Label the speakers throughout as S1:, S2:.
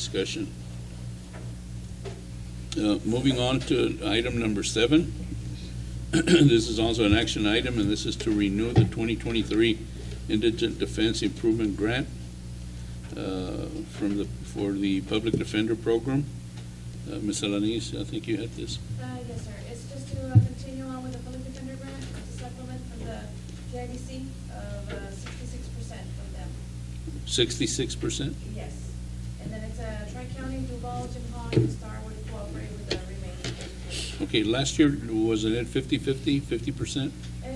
S1: discussion. Uh, Moving on to item number seven. This is also an action item, and this is to renew the 2023 Indigent Defense Improvement Grant uh, from the, for the Public Defender Program. Uh, Ms. Alanis, I think you had this.
S2: Uh, yes, sir. It's just to uh, continue on with the public defender grant to supplement from the JIBC of uh, sixty-six percent from them.
S1: 66%?
S2: Yes. And then it's uh, Tri-County, Duval, Jim Hall, and Starwood cooperate with the remaining.
S1: Okay, last year, wasn't it 50/50, 50%?
S2: Uh,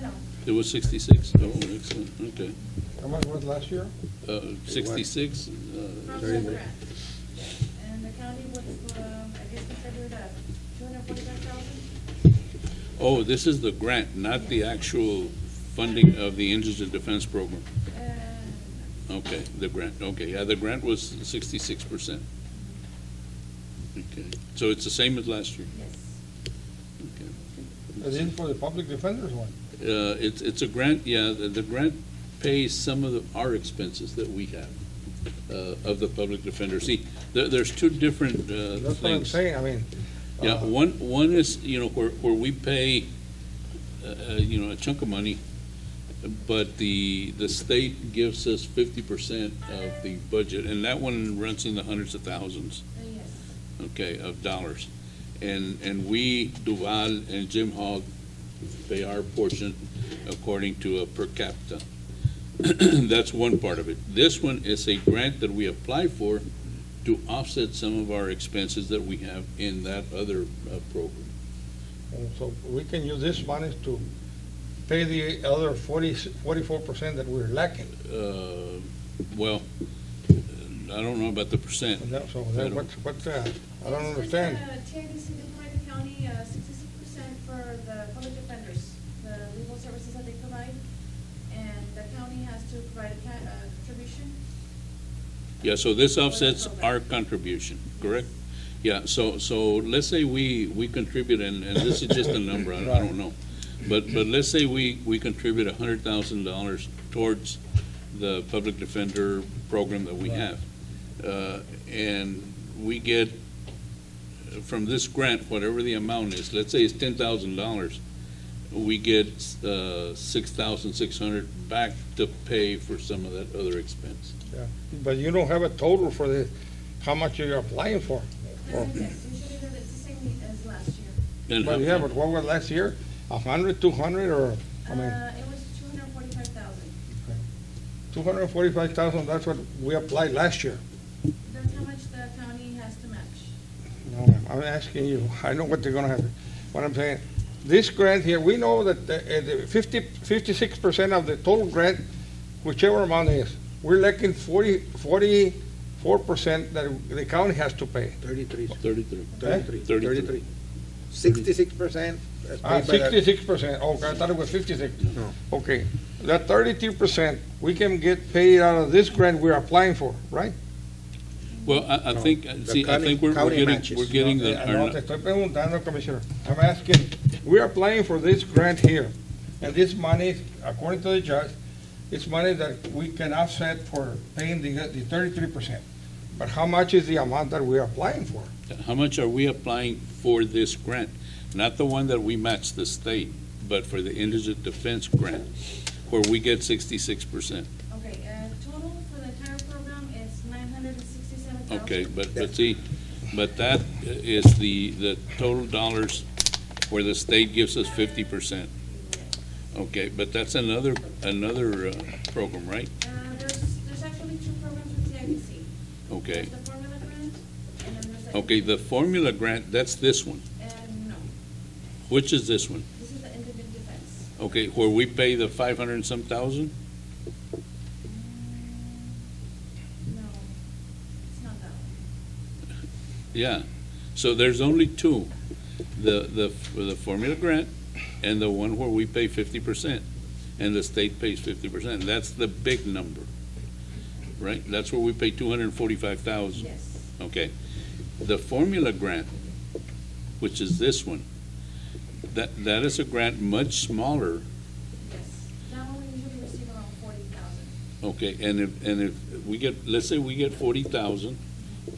S2: no,
S1: It was 66? Oh, excellent, okay.
S3: How much was last year?
S1: Uh, 66?
S2: from
S1: uh,
S2: the grant. And the county would, um, I guess, contribute uh two hundred forty-five thousand?
S1: Oh, this is the grant, not the actual funding of the indigent defense program.
S2: Uh,
S1: Okay, the grant, okay, yeah, the grant was 66%. Okay, so it's the same as last year?
S2: Yes.
S1: Okay.
S3: As in for the public defenders one?
S1: Uh, It's, it's a grant, yeah, the, the grant pays some of the- our expenses that we have uh, of the public defender. See, there, there's two different uh,
S3: That's what I'm
S1: things.
S3: saying, I mean.
S1: Yeah,
S3: uh,
S1: one, one is, you know, where, where we pay, uh, uh, you know, a chunk of money, but the, the state gives us fifty percent of the budget, and that one runs in the hundreds of thousands
S2: Uh, Yes.
S1: okay, of dollars. And, and we, Duval and Jim Hogg, pay our portion according to a per capita. That's one part of it. This one is a grant that we apply for to offset some of our expenses that we have in that other uh, program.
S3: So we can use this money to pay the other forty, forty-four percent that we're lacking.
S1: Uh, Well, I don't know about the percent.
S3: And that- So that, what, what, uh, I don't understand.
S2: TIBC deployed the county uh, sixty-six percent for the public defenders, the legal services that they provide, and the county has to provide a ca- uh, contribution.
S1: Yeah, so this
S2: For that
S1: offsets
S2: program.
S1: our contribution, correct? Yeah, so, so let's say we, we contribute, and, and this is just a number, I don't- I don't know. But, but let's say we, we contribute a hundred thousand dollars towards the public defender program that we
S3: Right.
S1: have. Uh, And we get uh, from this grant, whatever the amount is, let's say it's ten thousand dollars, we get, uh, six thousand six hundred back to pay for some of that other expense.
S3: Yeah. But you don't have a total for the, how much you're applying for. Or-
S2: Yes, usually they're the same as last year.
S1: And how-
S3: But yeah, but what was last year? A hundred, two hundred, or, I mean,
S2: Uh, It was two hundred and forty-five thousand.
S3: two hundred and forty-five thousand, that's what we applied last year.
S2: That's how much the county has to match.
S3: No, ma'am, I'm asking you, I know what they're gonna have. What I'm saying, this grant here, we know that the- uh, the fifty, fifty-six percent of the total grant, whichever amount it is, we're lacking forty, forty-four percent that the county has to pay.
S4: 33,
S1: Thirty-three.
S4: 33,
S1: Thirty-three.
S4: 33. 66% as
S3: Ah,
S4: paid by the,
S3: sixty-six percent, okay, I thought it was fifty-six.
S4: No.
S3: Okay, that thirty-two percent, we can get paid out of this grant we're applying for, right?
S1: Well, I, I
S4: No,
S1: think, uh,
S4: the
S1: see, I
S4: county-
S1: think we're, we're
S4: county
S1: getting,
S4: matches. uh,
S1: we're getting the,
S3: I
S1: our-
S3: know, eh, te estoy preguntando, Commissioner. I'm asking, we're applying for this grant here, and this money, according to the judge, it's money that we can offset for paying the, the thirty-three percent. But how much is the amount that we're applying for?
S1: how much are we applying for this grant? Not the one that we match the state, but for the indigent defense grant, where we get sixty-six percent.
S2: Okay, uh, total for the entire program is nine hundred and sixty-seven thousand.
S1: Okay, but, but see, but that is the, the total dollars where the state gives us fifty percent. Okay, but that's another, another, uh, program, right?
S2: Uh, There's, there's actually two programs with TIBC.
S1: Okay,
S2: There's the formula grant, and then there's the.
S1: okay, the formula grant, that's this one.
S2: And no,
S1: Which is this one?
S2: this is the individual defense.
S1: Okay, where we pay the five hundred and some thousand?
S2: No, it's not that one.
S1: Yeah, so there's only two, the, the, the formula grant and the one where we pay fifty percent, and the state pays fifty percent, that's the big number, right? That's where we pay two hundred and forty-five thousand,
S2: Yes.
S1: okay? The formula grant, which is this one, that, that is a grant much smaller,
S2: Yes. That one we usually receive around forty thousand.
S1: okay? And if, and if we get, let's say we get forty thousand,